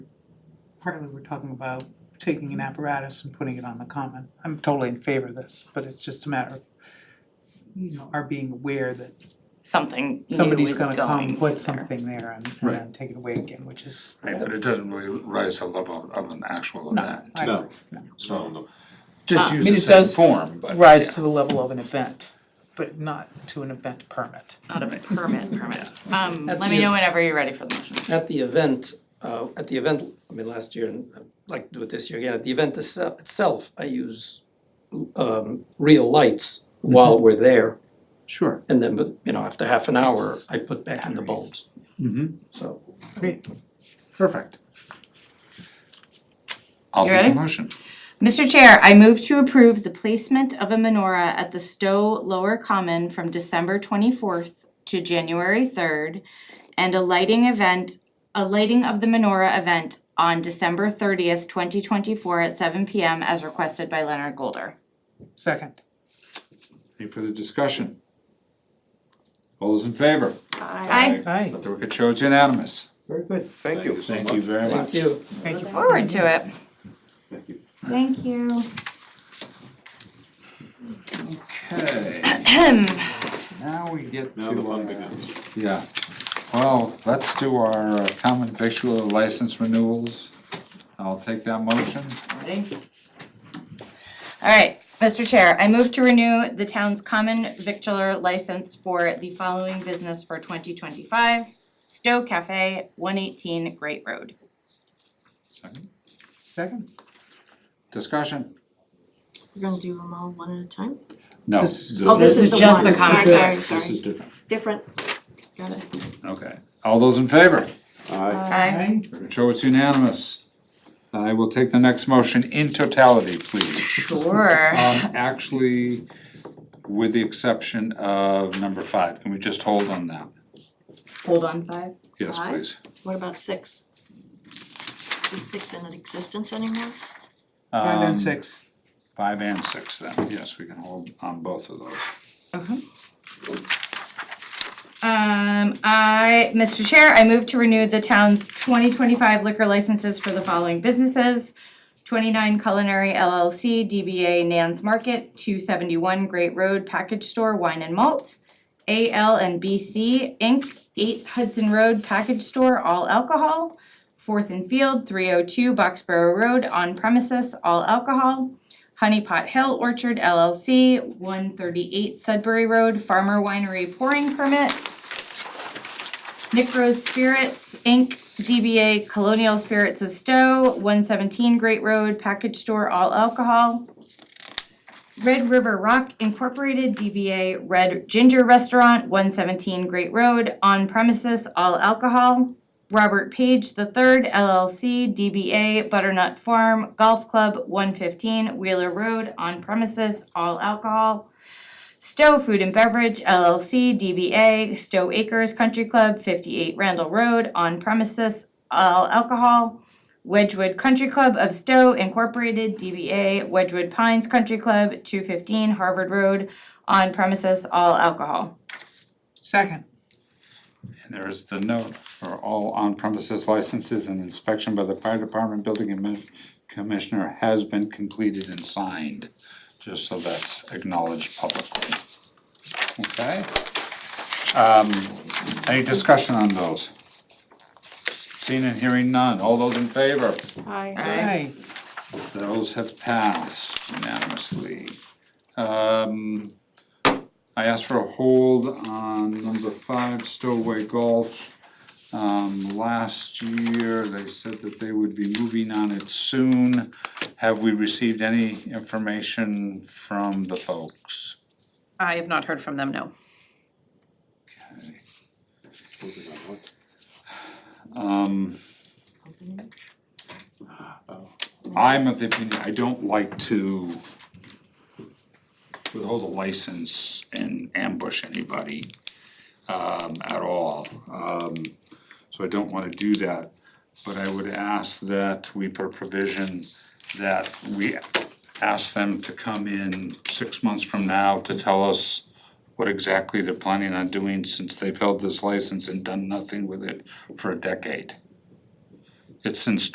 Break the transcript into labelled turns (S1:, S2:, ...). S1: partly we're talking about taking an apparatus and putting it on the common. I'm totally in favor of this, but it's just a matter of, you know, our being aware that
S2: something new
S1: somebody's
S2: is
S1: gonna come,
S2: going
S1: put
S2: there.
S1: something there and and
S3: Right.
S1: then take it away again, which is.
S4: Right, but it doesn't really rise to the level of an actual event,
S1: I-
S3: No.
S4: so.
S3: no.
S4: Just
S1: Ah. I
S4: use
S1: mean,
S4: the
S1: it
S4: same
S1: does
S4: form, but.
S1: Rise to the level of an event, but not to an event permit.
S2: Not a permit, permit. Um,
S5: At
S2: let me
S5: the-
S2: know whenever you're ready for the motion.
S5: At the event, uh, at the event, I mean, last year, and I'd like to do it this year again, at the event itse- itself, I use um real lights while we're there.
S4: Sure.
S5: And then, but, you know, after half an hour, I put back in the bulbs,
S4: Mm-hmm,
S5: so.
S1: Great.
S4: perfect. I'll
S2: You
S4: take the
S2: ready?
S4: motion.
S2: Mr. Chair, I move to approve the placement of a menorah at the Stowe Lower Common from December twenty-fourth to January third, and a lighting event, a lighting of the menorah event on December thirtieth, twenty twenty-four at seven P M as requested by Leonard Golder.
S1: Second,
S4: Any further discussion? All those in favor?
S2: Aye.
S1: Aye.
S4: Let the record show it's unanimous.
S5: Very good.
S6: Thank you so
S3: Thank
S6: much.
S3: you very much.
S5: Thank you.
S1: thank you.
S2: Forward to it.
S6: Thank you.
S2: Thank you.
S4: Okay, now we get to
S3: Now the fun
S4: our-
S3: begins.
S4: Yeah, well, let's do our uh, common victual license renewals. I'll take that motion.
S2: Ready? All right, Mr. Chair, I move to renew the town's common victular license for the following business for twenty twenty-five. Stowe Cafe, one eighteen Great Road.
S4: Second,
S1: Second,
S4: discussion?
S7: We're gonna do them all one at a time?
S4: No.
S1: This is-
S7: Oh,
S2: is
S7: this is the
S2: just
S7: one,
S2: the
S7: sorry,
S2: common
S7: sorry,
S3: This is
S7: sorry,
S3: different.
S7: different, got it.
S4: Okay, all those in favor?
S3: Aye.
S2: Aye.
S4: Record show it's unanimous. I will take the next motion in totality, please.
S2: Sure.
S4: Um, actually, with the exception of number five, can we just hold on that?
S2: Hold on five.
S4: Yes,
S7: Five?
S4: please.
S7: What about six? Is six in existence anymore?
S1: five
S4: Um,
S1: and six.
S4: Five and six then, yes, we can hold on both of those.
S2: Um, I, Mr. Chair, I move to renew the town's twenty twenty-five liquor licenses for the following businesses. Twenty-nine Culinary LLC, DBA Nan's Market, two seventy-one Great Road Package Store Wine and Malt. AL and BC Inc., eight Hudson Road Package Store, all alcohol. Fourth and Field, three oh two Boxborough Road, on premises, all alcohol. Honey Pot Hill Orchard LLC, one thirty-eight Sudbury Road, Farmer Winery Pouring Permit. Nick Rose Spirits Inc., DBA Colonial Spirits of Stowe, one seventeen Great Road, Package Store, all alcohol. Red River Rock Incorporated, DBA Red Ginger Restaurant, one seventeen Great Road, on premises, all alcohol. Robert Page III LLC, DBA Butternut Farm Golf Club, one fifteen Wheeler Road, on premises, all alcohol. Stowe Food and Beverage LLC, DBA Stowe Acres Country Club, fifty-eight Randall Road, on premises, all alcohol. Wedgewood Country Club of Stowe Incorporated, DBA Wedgewood Pines Country Club, two fifteen Harvard Road, on premises, all alcohol.
S1: Second,
S4: And there is the note for all on-premises licenses and inspection by the fire department building admin commissioner has been completed and signed, just so that's acknowledged publicly. Okay? Um, any discussion on those? Seeing and hearing none, all those in favor?
S7: Aye.
S1: aye.
S4: Those have passed unanimously. Um, I asked for a hold on number five, Stowaway Golf. Um, last year, they said that they would be moving on it soon. Have we received any information from the folks?
S8: I have not heard from them, no.
S4: Um, I'm of the opinion, I don't like to withhold a license and ambush anybody, um, at all. Um, so I don't wanna do that, but I would ask that we put a provision that we ask them to come in six months from now to tell us what exactly they're planning on doing since they've held this license and done nothing with it for a decade. It's since